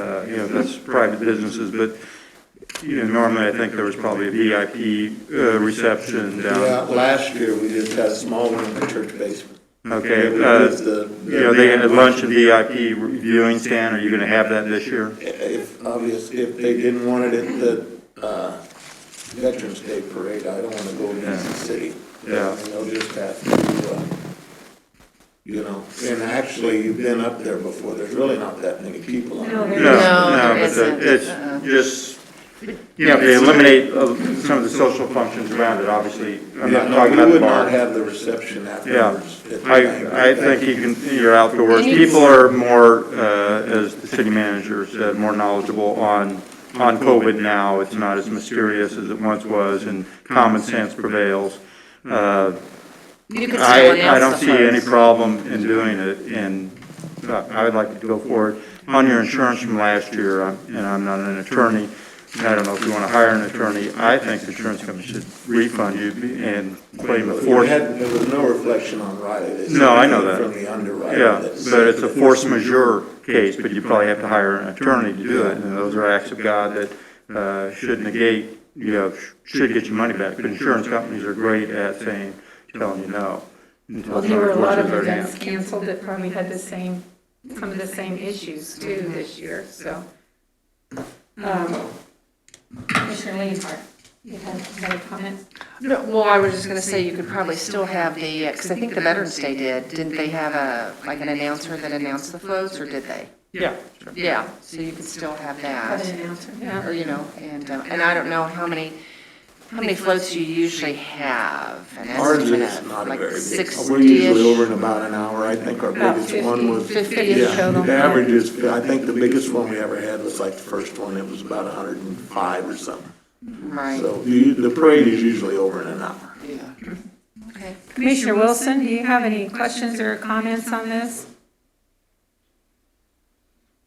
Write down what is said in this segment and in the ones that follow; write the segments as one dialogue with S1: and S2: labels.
S1: uh, you know, that's private businesses, but, you know, normally I think there was probably a VIP uh, reception
S2: Yeah,
S1: down.
S2: last year, we just had a small one in the church basement. It
S1: Okay, uh,
S2: was the-
S1: you know, they had lunch and VIP viewing stand, are you gonna have that this year?
S2: If, obvious, if they didn't want it at the, uh, Veterans Day Parade, I don't wanna go against the city.
S1: Yeah.
S2: And They'll just have to, uh, you know, and actually, you've been up there before, there's really not that many people on
S3: No,
S2: there.
S3: there-
S1: No,
S4: No,
S1: no,
S4: there
S1: but the-
S4: isn't. Uh-uh.
S1: it's just, you know, if they eliminate uh, some of the social functions around it, obviously, I'm
S2: Yeah,
S1: not
S2: no,
S1: talking
S2: you
S1: about the
S2: would not
S1: bar.
S2: have the reception
S1: Yeah,
S2: afterwards. at the bank.
S1: I, I think you can, you're outdoors,
S4: And you-
S1: people are more, uh, as the city manager said, more knowledgeable on, on COVID now, it's not as mysterious as it once was, and common sense prevails. Uh,
S4: You could someone
S1: I, I don't
S4: else
S1: see
S4: the
S1: any
S4: host.
S1: problem in doing it, and uh, I would like to go forward. On your insurance from last year, I'm- and I'm not an attorney, and I don't know if you want to hire an attorney, I think the insurance company should refund you and claim a
S2: There
S1: force.
S2: had, there was no reflection on Riley. This
S1: No, I know
S2: came
S1: that.
S2: From the underwriter.
S1: Yeah,
S2: that's-
S1: but it's a force majeure case, but you probably have to hire an attorney to do it, and those are acts of God that uh, should negate, you know, sh- should get your money back. But insurance companies are great at saying, telling you no. until
S3: Well, there were a lot of
S1: somebody forces their hand.
S3: events canceled that probably had the same, some of the same issues too this year, so. Um, Commissioner Leonhardt, you had had a comment?
S4: No, well, I was just gonna say, you could probably still have the, because I think the Veterans Day did, didn't they have a, like an announcer that announced the floats, or did they?
S1: Yeah.
S4: Yeah, so you could still have
S3: Had
S4: that,
S3: an announcement,
S4: or,
S3: yeah.
S4: you know, and, uh, and I don't know how many, how many floats you usually have. an
S2: Ours
S4: estimate
S2: is
S4: of,
S2: not a
S4: like
S2: very big.
S4: 60-ish.
S2: We're usually over in about an hour. I think our
S3: About
S2: biggest one was.
S3: 50
S2: Yeah,
S3: is total.
S2: The average is, I think the biggest one we ever had was like the first one. It was about hundred and five or something.
S4: Right,
S2: So the, the parade is usually over in an hour.
S4: yeah. Okay.
S3: Commissioner Wilson, do you have any questions or comments on this?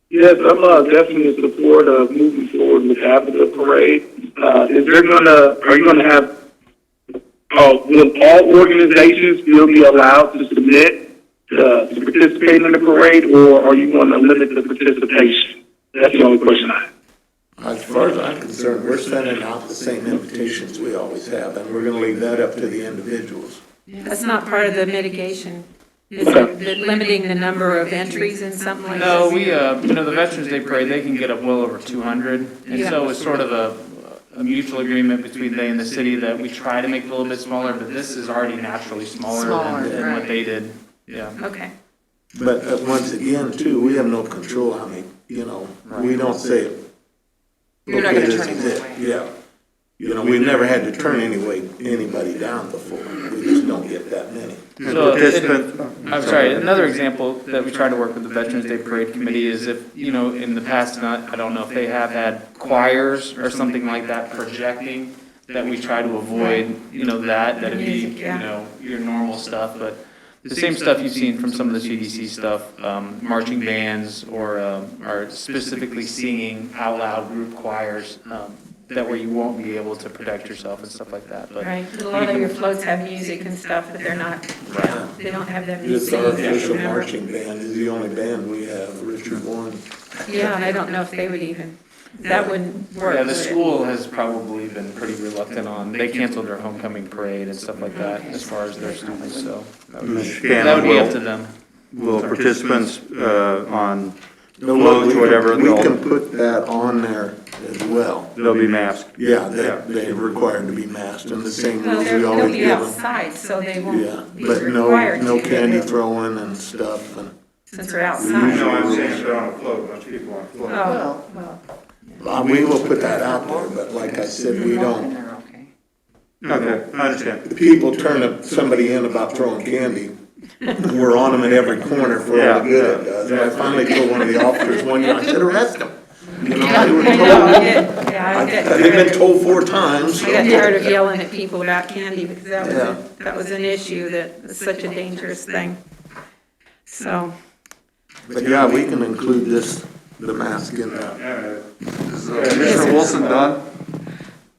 S5: Yes, I'm uh, definitely in support of moving forward with having the parade. Uh, is there gonna, are you gonna have, uh, will all organizations still be allowed to submit uh, to participate in the parade, or are you gonna limit the participation? That's the only question I have.
S2: As far as I'm concerned, we're sending out the same invitations we always have, and we're gonna leave that up to the individuals.
S3: That's not part of the mitigation, is it, that limiting the number of entries and something like this?
S6: No, we, uh, you know, the Veterans Day Parade, they can get up well over 200. And so it's sort of a, a mutual agreement between they and the city that we try to make it a little bit smaller, but this is already naturally smaller
S4: Smaller,
S6: than- than
S4: right.
S6: what they did. Yeah.
S3: Okay,
S2: But uh, once again, too, we have no control, I mean, you know, we don't say.
S4: You're not gonna
S2: "Okay, this
S4: turn
S2: is
S4: anyone
S2: it."
S4: away.
S2: Yeah. You know, we've never had to turn anyway, anybody down before, we just don't get that many.
S1: And
S6: So, it-
S1: participant-
S6: I'm sorry, another example that we try to work with the Veterans Day Parade Committee is if, you know, in the past, and I I don't know if they have had choirs or something like that projecting, that we try to avoid, you know, that, that'd be,
S3: Music, yeah.
S6: you know, your normal stuff, but the same stuff you've seen from some of the CDC stuff, um, marching bands or, um, or specifically singing out loud group choirs, um, that way you won't be able to protect yourself and stuff like that, but.
S3: right, a lot of your floats have music and stuff, but they're not,
S2: Right.
S3: they don't have that
S2: It's
S3: music.
S2: our
S3: that you
S2: official
S3: remember.
S2: marching band, is the only band we have, Richard Warren.
S3: Yeah, and I don't know if they would even, that wouldn't work.
S6: Yeah, the
S3: would it?
S6: school has probably been pretty reluctant on, they canceled their homecoming parade and stuff like that as far as their students, so.
S1: Mr.
S6: That would
S1: Scanlon,
S6: be up to
S1: will,
S6: them.
S1: will participants uh, on floats, whatever,
S2: We can
S1: they'll,
S2: put that on there as well.
S1: they'll be masked?
S2: Yeah, they, they're required to be masked, and the same
S3: Well,
S2: rules
S3: they're,
S2: we
S3: they'll
S2: always
S3: be
S2: give them.
S3: outside, so they
S2: Yeah,
S3: won't be
S2: but no,
S3: required to.
S2: no candy
S3: but
S2: throwing and stuff, and.
S3: Since they're outside.
S2: No, I'm saying
S1: they're on a float, bunch of people on a float.
S3: Oh, well,
S2: Uh, We will put that out there, but like I said, we don't.
S4: Walking there, okay.
S1: Okay, I understand.
S2: The People turn up- somebody in about throwing candy. We're on them at every corner for all the good it does. And I finally told one of the officers one year, I said, arrest them. You know,
S3: I
S2: they were
S3: know, I
S2: told,
S3: get, yeah, I get
S2: they've been
S3: tired of-
S2: told four times.
S3: I got tired of yelling at people about candy because that was,
S2: Yeah.
S3: a- that was an issue that was such a dangerous thing. So,
S2: But yeah, we can include this, the mask in that.
S7: Commissioner Wilson done?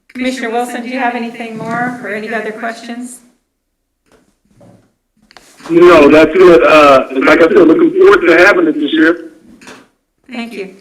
S3: Commissioner Wilson, do you have anything more or any other questions?
S5: No, that's good. Uh, like I said, looking forward to having it this year.
S3: Thank you.